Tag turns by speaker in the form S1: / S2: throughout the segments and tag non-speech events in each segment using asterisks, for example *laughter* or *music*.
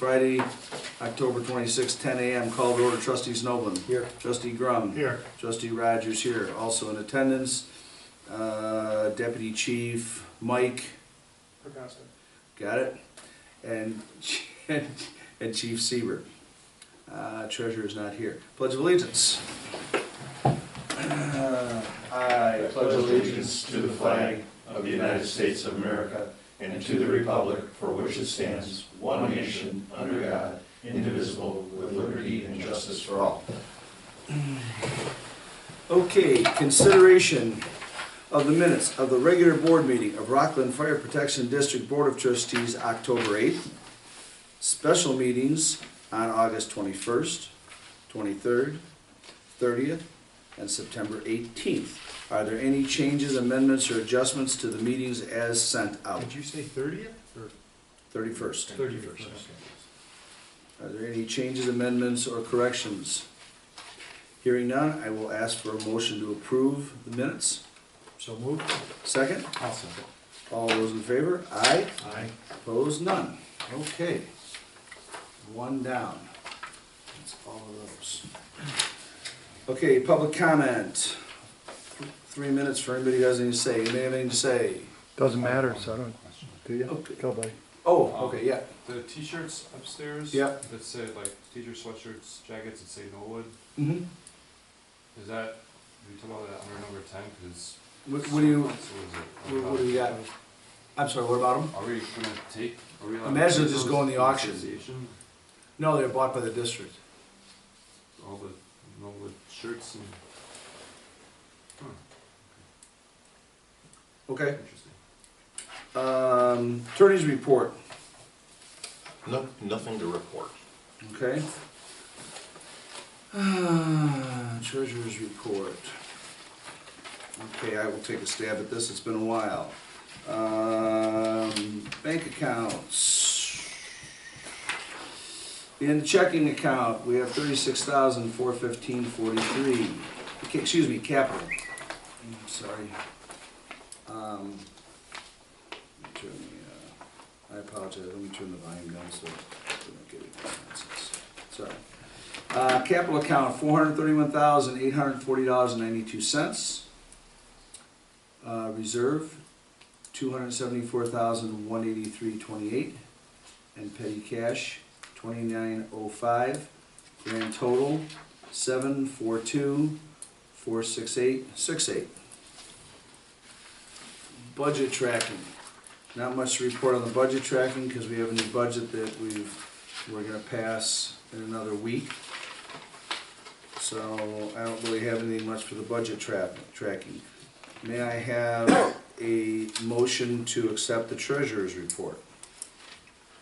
S1: Friday, October 26, 10 a.m. Call to order trustee Snowman.
S2: Here.
S1: Trustee Grum.
S2: Here.
S1: Trustee Rogers here. Also in attendance, uh, Deputy Chief Mike,
S2: Precasted.
S1: got it? And, *laughs* and Chief Seaver. Uh, Treasurer is not here. Pledge of allegiance. I
S3: *clears throat* I pledge allegiance to the flag of the United States of America and to the republic for which it stands, one nation, under God, indivisible, with liberty and justice for all.
S1: Okay, consideration of the minutes of the regular board meeting of Rockland Fire Protection District Board of Trustees, October 8th. Special meetings on August 21st, 23rd, 30th, and September 18th. Are there any changes, amendments, or adjustments to the meetings as sent out?
S2: Did you say thirtieth or
S1: 31st.
S2: thirty-first?
S1: Are there any changes, amendments, or corrections? Hearing none, I will ask for a motion to approve the minutes.
S2: So moved.
S1: Second?
S2: Awesome.
S1: All those in favor? Aye.
S2: Aye.
S1: Opposed? None. Okay. One down. That's all of those. Okay, public comment. Three minutes for anybody who has anything to say. Anybody have anything to say?
S4: Doesn't matter, so I don't, do you?
S1: Okay.
S4: Go, buddy.
S1: Oh, okay, yeah.
S5: The t-shirts upstairs.
S1: Yep.
S5: That say like teacher sweatshirts, jackets that say Norwood.
S1: Mm-hmm.
S5: Is that we talk about that under number ten? Because
S1: What what do you,
S5: What, is it?
S1: what what do we got? I'm sorry, what about them?
S5: Are we gonna take? Are we allowed to
S1: Imagine
S5: take
S1: just
S5: those
S1: go in the
S5: to
S1: auction.
S5: association?
S1: No, they're bought by the district.
S5: All the Norwood shirts and. Huh,
S1: Okay.
S5: interesting.
S1: Um, attorney's report,
S3: No, nothing to report.
S1: okay? Ah, Treasurer's report. Okay, I will take a stab at this, it's been a while. Um, bank accounts. In the checking account, we have thirty-six thousand, four fifteen, forty-three. Ca- Excuse me, capital. I'm sorry. Um, turn the, uh, I apologize, let me turn the volume down so we don't get any nonsense. Sorry. Uh, capital account, four hundred thirty-one thousand, eight hundred forty dollars and ninety-two cents. Uh, reserve, two hundred seventy-four thousand, one eighty-three, twenty-eight. And petty cash, twenty-nine oh five. Grand total, seven, four, two, four, six, eight, six, eight. Budget tracking. Not much to report on the budget tracking because we have a new budget that we've, we're gonna pass in another week. So I don't really have anything much for the budget trap, tracking. May I have a motion to accept the treasurer's report?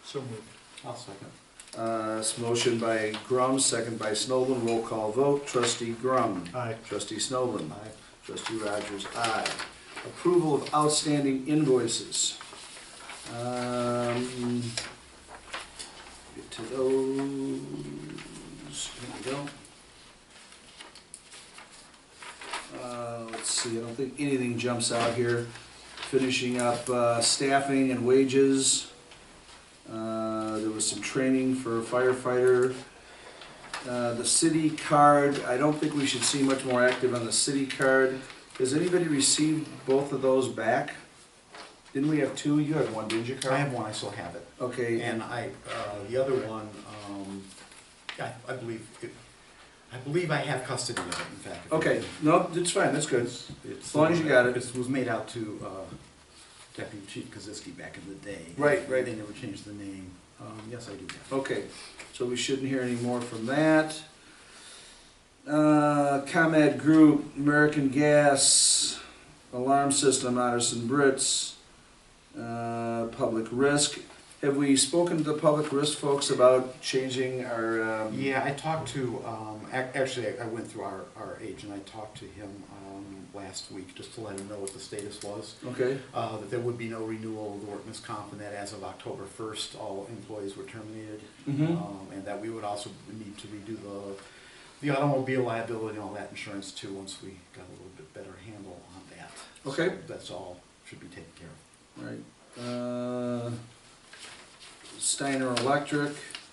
S2: So moved. I'll second.
S1: Uh, it's motion by Grum, second by Snowden, roll call vote, trustee Grum.
S2: Aye.
S1: Trustee Snowden. Aye. Trustee Rogers, aye. Approval of outstanding invoices. Um, Get to those, here we go. Uh, Let's see, I don't think anything jumps out here. Finishing up uh, staffing and wages. Uh, There was some training for firefighter. Uh, The city card, I don't think we should see much more active on the city card. Has anybody received both of those back? Didn't we have two? You had one, didn't you, Carl?
S6: I have one, I still have it.
S1: Okay,
S6: And I, uh, the other one, um, I, I believe, it- I believe I have custody of it, in fact. if you-
S1: okay, no, it's fine, that's good.
S6: It's-
S1: As long as you got it.
S6: This was made out to, uh, Deputy Chief Koziski back in the day.
S1: Right, right.
S6: They never changed the name. Um, yes, I do have it.
S1: Okay, so we shouldn't hear any more from that. Uh, ComEd Group, American Gas, Alarm System, Otterson Brits, uh, Public Risk. Have we spoken to the Public Risk folks about changing our, um?
S6: Yeah, I talked to, um, ac- actually, I I went through our, our agent, I talked to him, um, last week, just to let him know what the status was.
S1: Okay,
S6: uh, that there would be no renewal of the workman's comp, and that as of October 1st, all employees were terminated.
S1: Mhm.
S6: Um, And that we would also need to redo the, the automobile liability and all that insurance too, once we got a little bit better handle on that.
S1: Okay.
S6: So That's all, should be taken care of.
S1: all right. Uh, Steiner Electric.